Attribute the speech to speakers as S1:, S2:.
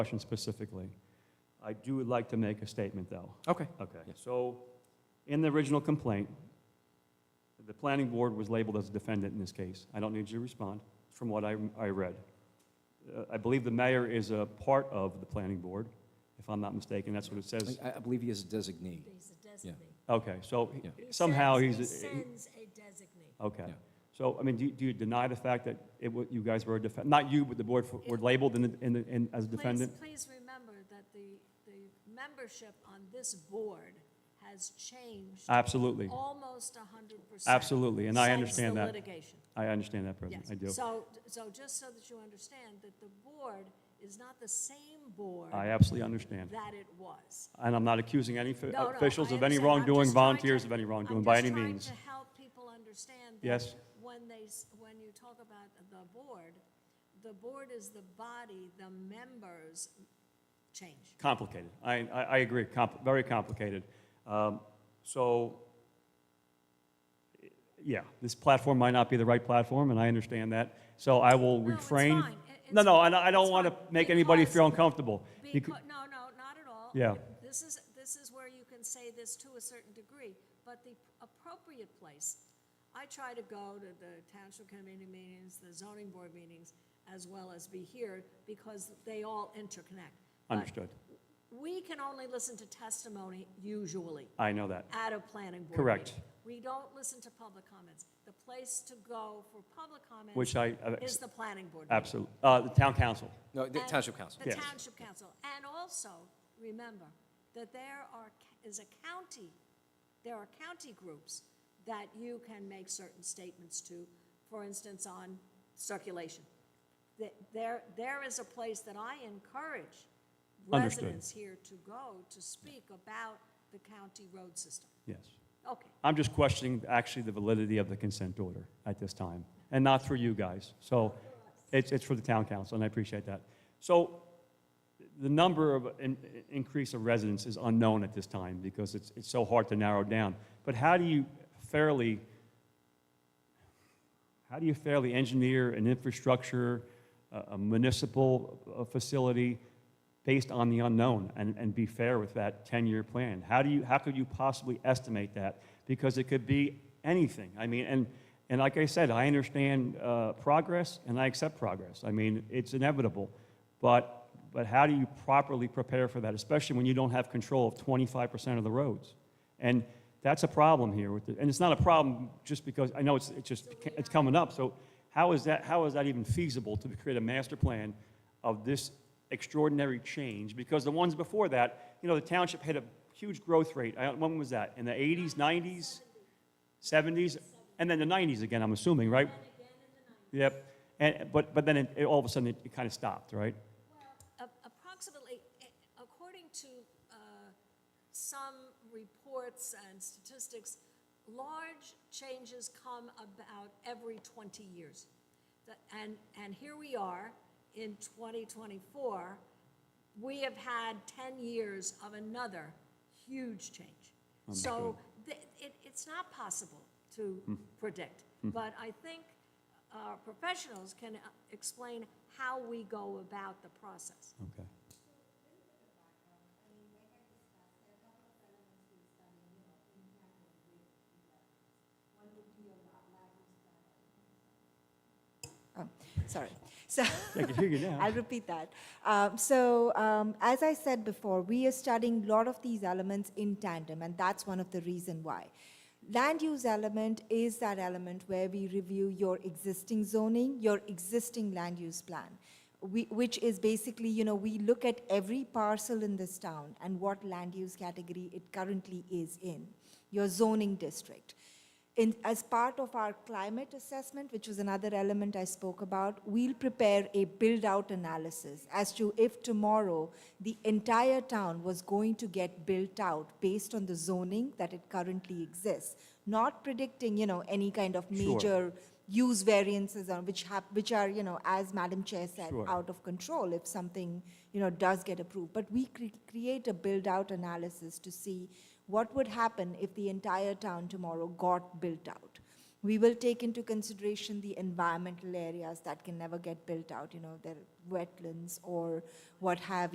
S1: question specifically. I do would like to make a statement, though.
S2: Okay.
S1: Okay,
S2: Yes.
S1: so in the original complaint, the planning board was labeled as a defendant in this case. I don't need you to respond, from what I, I read. Uh, I believe the mayor is a part of the planning board, if I'm not mistaken, that's what it says.
S2: I, I believe he is a designee.
S3: He's a designee.
S1: Okay, so
S2: Yeah.
S3: He
S1: somehow
S3: sends-
S1: he's.
S3: He sends a designee.
S1: Okay.
S2: Yeah.
S1: So, I mean, do you- do you deny the fact that it, wa- you guys were, a defen- not you, but the board f- were labeled in, the- in, the- in- as a defendant?
S3: Please, please remember that the, the membership on this board has changed
S1: Absolutely.
S3: almost a hundred percent.
S1: Absolutely, and I understand that.
S3: Since the litigation,
S1: I understand that, President.
S3: yes.
S1: I do.
S3: So, so just so that you understand that the board is not the same board
S1: I absolutely understand.
S3: that it was.
S1: And I'm not accusing any fi-
S3: No, no,
S1: officials
S3: I
S1: of any
S3: understand. I'm
S1: wrongdoing,
S3: just trying to-
S1: volunteers of any wrongdoing, by any
S3: I'm just
S1: means.
S3: trying to help people understand. that
S1: Yes.
S3: When they, s- when you talk about the board, the board is the body, the members change.
S1: Complicated. I, I, I agree, Compl- very complicated. Um, So, yeah, this platform might not be the right platform, and I understand that. So I will
S3: No, it's
S1: refrain.
S3: fine. It-
S1: No,
S3: it's
S1: no,
S3: fine.
S1: and I I don't
S3: It's
S1: want to
S3: fine.
S1: make anybody feel
S3: Because-
S1: uncomfortable. Becau-
S3: Because, no, no, not at all.
S1: Yeah.
S3: This is, this is where you can say this to a certain degree, but the appropriate place, I try to go to the township committee meetings, the zoning board meetings, as well as be here, because they all interconnect. But
S1: Understood.
S3: We can only listen to testimony usually
S1: I know that.
S3: at a planning board.
S1: Correct.
S3: meeting. We don't listen to public comments. The place to go for public comments.
S1: Which I- uh, I-
S3: Is the planning board. meeting.
S1: Absolutely. Uh, the town council.
S2: No, the
S3: And
S2: township council.
S3: The
S1: Yes.
S3: township council. And also, remember, that there are, is a county, there are county groups that you can make certain statements to, for instance, on circulation. That There, there is a place that I encourage
S1: Understood.
S3: residents here to go to speak about the county road system.
S1: Yes.
S3: Okay,
S1: I'm just questioning actually the validity of the consent order at this time, and not for you guys. So it's, it's for the town council, and I appreciate that. So the number of in, increase of residents is unknown at this time because it's, it's so hard to narrow down. But how do you fairly, how do you fairly engineer an infrastructure, a a municipal uh, facility based on the unknown and, and be fair with that 10-year plan? How do you, how could you possibly estimate that? Because it could be anything. I mean, and, and like I said, I understand uh, progress and I accept progress. I mean, it's inevitable. But, but how do you properly prepare for that, especially when you don't have control of 25% of the roads? And that's a problem here with, the- and it's not a problem just because, I know it's, it's just, it's coming up, so how is that, how is that even feasible to create a master plan of this extraordinary change? Because the ones before that, you know, the township had a huge growth rate, I, when was that, in the eighties, nineties, seventies, and then the nineties again, I'm assuming, right? Yep, and, but, but then it, it- all of a sudden, it, it kind of stopped, right?
S3: A- approximately, eh, according to uh, some reports and statistics, large changes come about every 20 years. The- And, and here we are in 2024, we have had 10 years of another huge change. So th- it, it's not possible to predict, but I think our professionals can uh, explain how we go about the process.
S1: Okay.
S4: Oh, sorry. So
S1: I can hear you now.
S4: I'll repeat that. Um, so um, as I said before, we are studying a lot of these elements in tandem, and that's one of the reason why. Land use element is that element where we review your existing zoning, your existing land use plan. We, which is basically, you know, we look at every parcel in this town and what land use category it currently is in, your zoning district. In, as part of our climate assessment, which was another element I spoke about, we'll prepare a build out analysis as to if tomorrow the entire town was going to get built out based on the zoning that it currently exists, not predicting, you know, any kind of
S1: Sure.
S4: major use variances on which hap- which are, you know, as Madam Chair said,
S1: Sure.
S4: out of control if something, you know, does get approved. But we cre- create a build out analysis to see what would happen if the entire town tomorrow got built out. We will take into consideration the environmental areas that can never get built out, you know, their wetlands or what have